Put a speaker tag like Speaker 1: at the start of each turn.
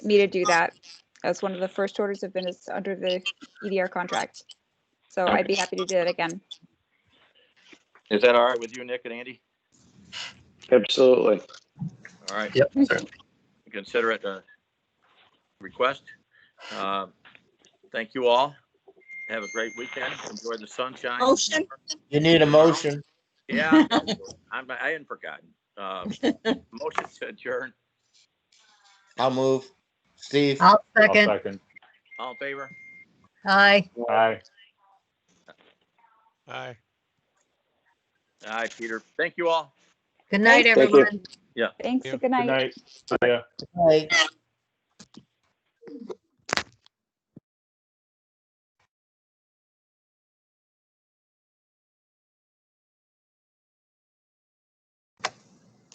Speaker 1: me to do that. That's one of the first orders of business under the EDR contract. So I'd be happy to do that again.
Speaker 2: Is that all right with you, Nick and Andy?
Speaker 3: Absolutely.
Speaker 2: All right.
Speaker 4: Yep.
Speaker 2: Consider it a request. Um, Thank you all. Have a great weekend. Enjoy the sunshine.
Speaker 5: Motion?
Speaker 4: You need a motion.
Speaker 2: Yeah, I'm, I hadn't forgotten. Uh, Motion to adjourn.
Speaker 4: I'll move. Steve,
Speaker 5: I'll
Speaker 6: I'll
Speaker 5: second.
Speaker 6: second.
Speaker 2: All in favor?
Speaker 5: Aye.
Speaker 6: Aye.
Speaker 7: Aye.
Speaker 2: Aye, Peter. Thank you all.
Speaker 5: Good night,
Speaker 3: Thank you.
Speaker 5: everyone.
Speaker 1: Thanks,
Speaker 7: Yeah.
Speaker 1: good
Speaker 6: Good
Speaker 1: night.
Speaker 6: night. See ya.
Speaker 4: aye.